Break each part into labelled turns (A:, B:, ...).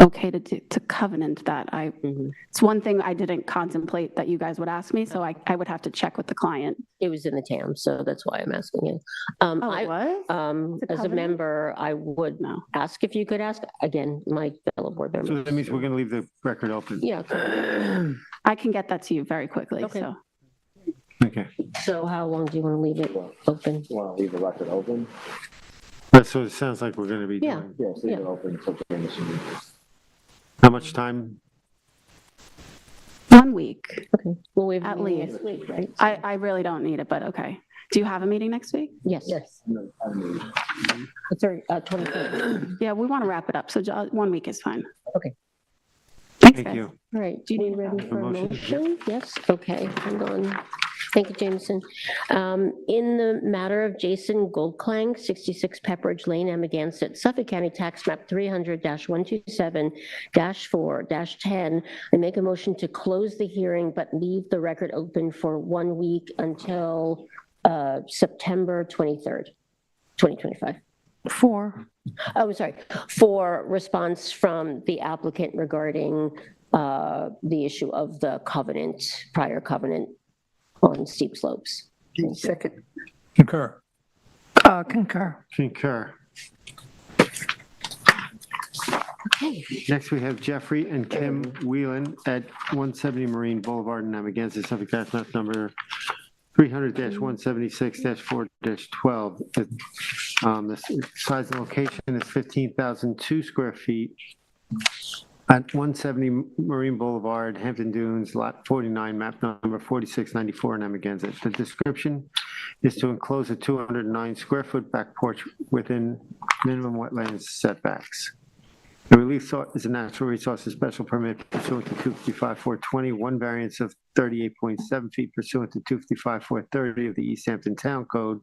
A: okay to, do- to covenant that. I,
B: Mhm.
A: it's one thing I didn't contemplate that you guys would ask me, so I, I would have to check with the client.
B: It was in the TAM, so that's why I'm asking it. Um,
A: Oh, it
B: I,
A: was?
B: um,
A: It's a
B: as a
A: covenant?
B: member, I would
A: No.
B: ask if you could ask, again, my fellow board
C: So
B: member.
C: that means we're going to leave the record open.
B: Yeah, okay.
A: I can get that to you very quickly,
B: Okay.
A: so.
C: Okay.
B: so how long do you want to leave it open?
D: You want to leave the record open?
C: That's what it sounds like we're going to be
B: Yeah.
C: doing.
D: Yes, leave it
B: Yeah.
D: open until the end of the meeting.
C: How much time?
A: One week.
B: Okay, well, we have. a
A: At
B: meeting
A: least.
B: next week, right?
A: I, I really don't need it, but okay. Do you have a meeting next week?
B: Yes,
D: Yes. No, I mean,
B: the third, uh, twenty-third,
A: Yeah, we want to wrap it up, so ju- one week is fine.
B: Okay.
A: Thanks,
C: Thank
A: guys.
C: you.
B: all right,
A: Do you
B: we
A: need a
B: ready for a
C: motion?
B: motion? Yes, okay, hang on, thank you, Jameson. Um, in the matter of Jason Goldklang, sixty-six Pepperidge Lane, Amagansett, Suffolk County Tax Map three hundred one two seven four ten, I make a motion to close the hearing but leave the record open for one week until, uh, September twenty-third, twenty twenty-five.
A: Four.
B: Oh, sorry, for response from the applicant regarding uh, the issue of the covenant, prior covenant on steep slopes.
E: Second.
F: Concur.
E: Uh, concur.
C: Concur. Next, we have Jeffrey and Kim Wheelan at 170 Marine Boulevard in Amagansett, Suffolk Tax Map Number 300-176-4-12. The um, the size and location is 15,002 square feet at 170 Marine Boulevard, Hampton Dunes, Lot 49, map number 4694 in Amagansett. The description is to enclose a 209-square-foot back porch within minimum wetlands setbacks. The relief sought is a natural resources special permit pursuant to 255-420, one variance of 38.7 feet pursuant to 255-430 of the East Hampton Town Code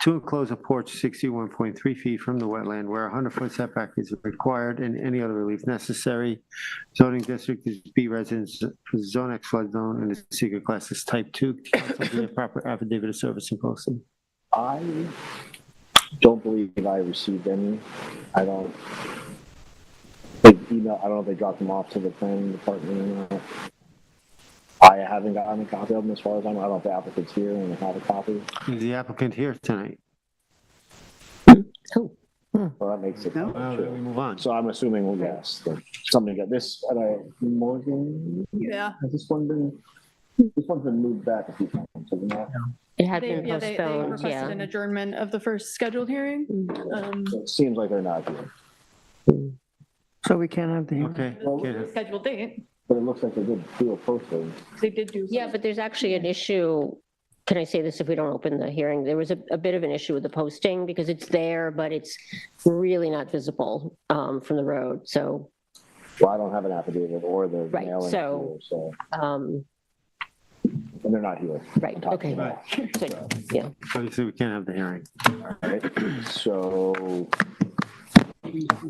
C: to enclose a porch 61.3 feet from the wetland where a 100-foot setback is required and any other relief necessary. Zoning district is B residence, zone X flood zone, and is secret class is type 2. Counsel do the proper affidavit of service and posting.
D: I don't believe that I received any. I don't. Like, email, I don't know if they dropped them off to the planning department or not. I haven't gotten a copy of them as far as I'm, I don't know if the applicant's here and they have a copy,
C: Is the applicant here tonight?
B: Oh,
D: so that makes it.
A: No.
C: Well, then we move on.
D: So I'm assuming, well, yes, that somebody got this at a Morgan.
E: Yeah.
D: Has this one been, this one's been moved back a few times, hasn't it?
B: it had
G: They,
B: been
G: yeah, they, they
B: postponed,
G: requested an
B: yeah. Mm.
G: adjournment of the first scheduled hearing. Um,
D: So It seems like they're not here,
E: So we can't have the hearing.
C: Okay. get it.
G: Scheduled date,
D: but it looks like they did do a posting.
G: they did do.
B: Yeah, but there's actually an issue, can I say this if we don't open the hearing? There was a, a bit of an issue with the posting because it's there, but it's really not visible um, from the road, so,
D: Well, I don't have an affidavit or the
B: Right,
D: mailing,
B: so-
D: here, so,
B: um,
D: and they're not here.
B: right, okay. So, Yeah,
C: Obviously, we can't have the hearing.
D: Right, so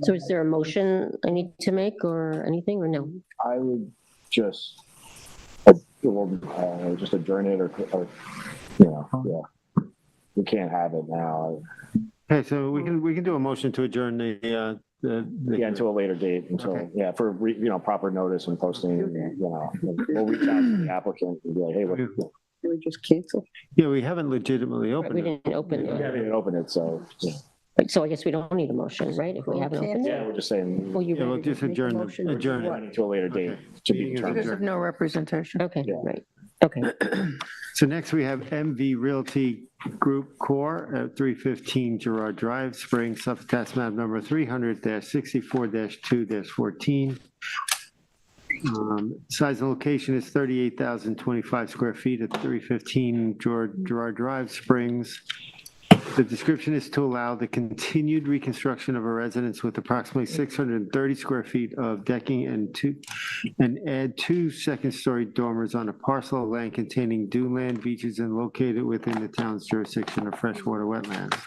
B: so is there a motion I need to make or anything, or no?
D: I would just, uh, well, uh, just adjourn it or, or, you know, yeah. We can't have it now,
C: Okay, so we can, we can do a motion to adjourn the, uh, the. the-
D: yeah, until a later date,
C: Okay.
D: until, yeah, for, re- you know, proper notice and posting, you know. We'll reach out to the applicant and be like, hey, what, we
E: Can we just cancel?
C: Yeah, we haven't legitimately
B: Right, We
C: opened it.
B: didn't open the
D: haven't even opened it, so, yeah,
B: Right, So I guess we don't need a motion, right? If we haven't opened
D: Yeah,
B: it?
D: we're just saying,
B: Well, you
C: Yeah, we'll
B: ready to
C: just
B: make a
C: adjourn,
B: motion?
C: the- adjourn it.
D: to a later date
C: Okay.
D: to be
C: Meeting is
D: determined.
E: Because of no representation.
B: Okay,
D: Yeah.
B: right, okay.
C: So next we have MV Realty Group Corp. at 315 Gerard Drive, Spring, Suffolk Tax Map Number 300-64-2-14. Um, Size and location is 38,025 square feet at 315 Gerard Gerard Drive, Springs. The description is to allow the continued reconstruction of a residence with approximately 630 square feet of decking and two, and add two second-story dormers on a parcel of land containing dune land beaches and located within the town's jurisdiction of freshwater wetlands.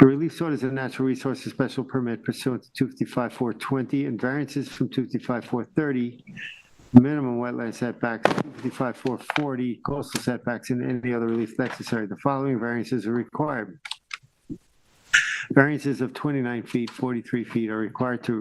C: The relief sought is a natural resources special permit pursuant to 255-420 and variances from 255-430, minimum wetland setbacks, 255-440 coastal setbacks, and any other relief necessary. The following variances are required. Variances of 29 feet, 43 feet are required to